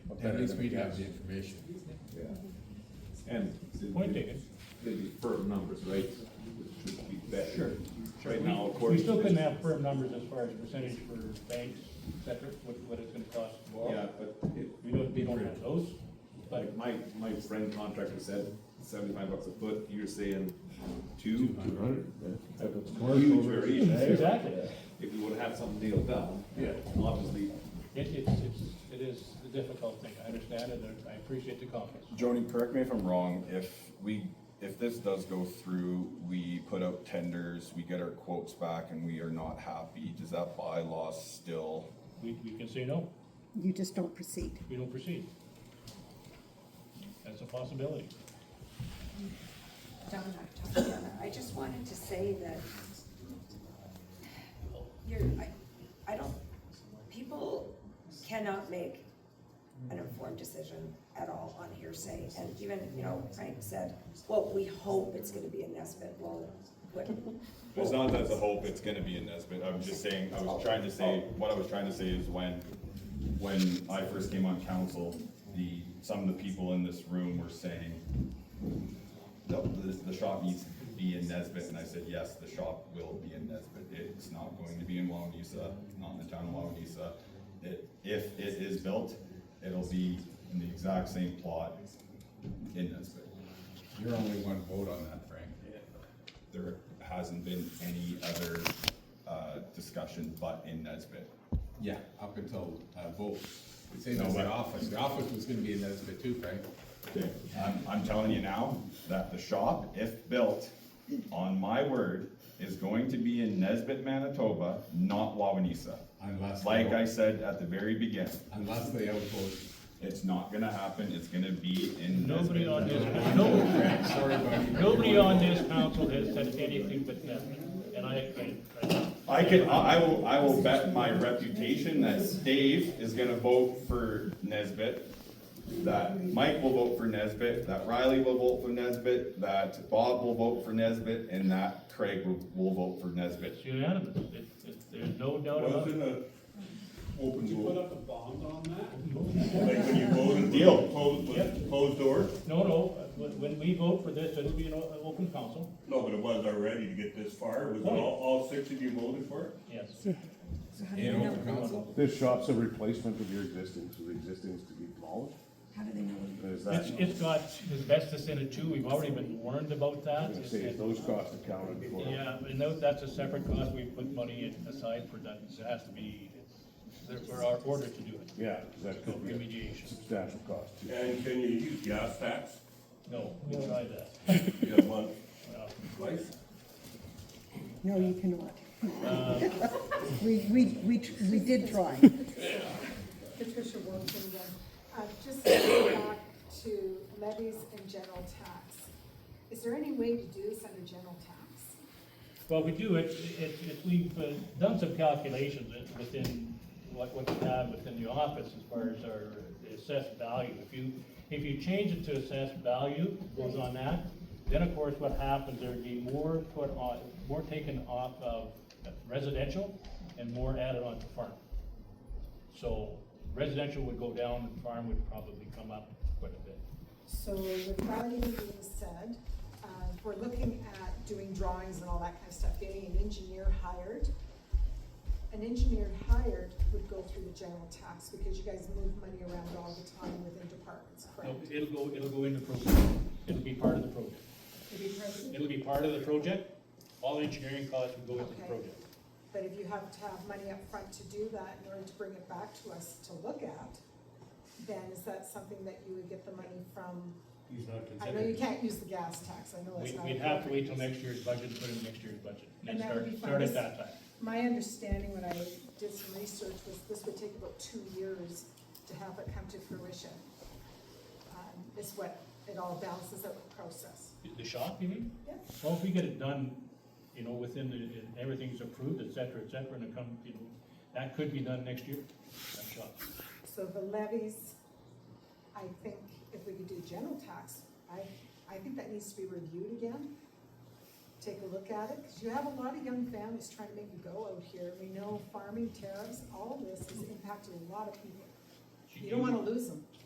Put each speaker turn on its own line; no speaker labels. better
At least
than a
we'd have the
guess.
information.
Yeah.
And the-
Point taken.
The deferred numbers, right? Should be better.
Sure.
Right
We-
now, according.
We still
to-
couldn't have firm numbers as far as percentage for banks, et cetera, what, what it's gonna cost. to borrow.
Yeah, but it,
We don't, we don't have those, but
like, my, my friend contractor said seventy-five bucks a foot, you're saying two?
Two hundred.
Huge variation.
exactly, it,
If you would have something nailed down.
Yeah.
Obviously,
it's, it's, it is a difficult thing, I understand it, and I appreciate the comments.
Joni, correct me if I'm wrong, if we, if this does go through, we put out tenders, we get our quotes back and we are not happy, does that bylaw still?
We, we can say no,
You just don't proceed.
we don't proceed. That's a possibility.
John and I talked together, I just wanted to say that you're, I, I don't, people cannot make an informed decision at all on hearsay, and even, you know, Frank said, well, we hope it's gonna be a Nesbit, well, what?
It's not that the hope it's gonna be in this, but I'm just saying, I was trying to say, what I was trying to say is when, when I first came on council, the, some of the people in this room were saying, no, the, the shop needs to be in Nesbit, and I said, yes, the shop will be in Nesbit, it's not going to be in Wawanesa, it's not in the town of Wawanesa. It, if it is built, it'll be in the exact same plot in Nesbit.
You're only one vote on that, Frank.
There hasn't been any other, uh, discussion but in Nesbit.
Yeah, up until, uh, vote. It's in
No,
the
but-
office. The office was gonna be in Nesbit too, Frank.
I'm, I'm telling you now that the shop, if built, on my word, is going to be in Nesbit, Manitoba, not Wawanesa.
Unless.
Like I said at the very beginning,
Unless they outvote.
it's not gonna happen, it's gonna be in
Nobody
Nesbit.
on this, no,
Frank, sorry, buddy. but
nobody
you're
on
one vote.
this council has said anything but that, and I, I, I
I can, I I will, I will bet my reputation that Dave is gonna vote for Nesbit, that Mike will vote for Nesbit, that Riley will vote for Nesbit, that Bob will vote for Nesbit, and that Craig will, will vote for Nesbit.
It's unanimous, it, it, there's no doubt about it.
Wasn't a open vote,
up a bond on that?
like when you voted, deal, closed, was closed door?
No, no, when, when we vote for this, it'll be an o- an open council,
No, but it was already to get this far, was it all, all six of you voted for it?
yes.
So how do they
In
know,
open council.
This shop's a replacement of your existing, so the existing's to be demolished?
how do they know?
Is that,
It's, it's got asbestos in it too, we've already been warned about
I'm
that.
gonna say, if those costs accounted for?
Yeah, and tho- that's a separate cost, we put money aside for that, it has to be, there- for our order to do it,
Yeah, 'cause that could be a
remediation.
substantial cost. too.
And can you use gas tax?
No, we tried that.
You have one,
Well,
twice?
No, you cannot. We, we, we, tr- we did try.
Patricia Wilson again. Uh, Just going back to levies and general tax. Is there any way to do this under general tax?
Well, we do, it, it, it, we've uh, done some calculations it- within, what, what we have within the office as far as our assessed value. If you, if you change it to assessed value, goes on that, then of course what happens, there'd be more put on, more taken off of residential and more added on to farm. So residential would go down and farm would probably come up quite a bit.
So with value being said, uh, if we're looking at doing drawings and all that kind of stuff, getting an engineer hired. An engineer hired would go through the general tax because you guys move money around all the time within departments,
No,
correct?
It'll go, it'll go in the project, it'll be part of the project.
If you have-
It'll be part of the project, all engineering costs will go into the
Okay.
project.
But if you have to have money up front to do that in order to bring it back to us to look at, then is that something that you would get the money from?
He's not
I know you can't use the gas tax, I know that's
We,
not.
we'd have to wait till next year's budget, and put in next year's budget, and
And
then
that would
start,
be
start
fine.
at that time.
My understanding when I did some research was this would take about two years to have it come to fruition. Um, Is what it all balances out with process.
The- The shop, you mean?
Yeah.
Well, if we get it done, you know, within the, and everything's approved, et cetera, et cetera, and it come, you know, that could be done next year, that shop.
So the levies, I think if we could do general tax, I, I think that needs to be reviewed again. Take a look at it, because you have a lot of young families trying to make a go out here. We know farming tariffs, all of this has impacted a lot of people. You don't want to lose them.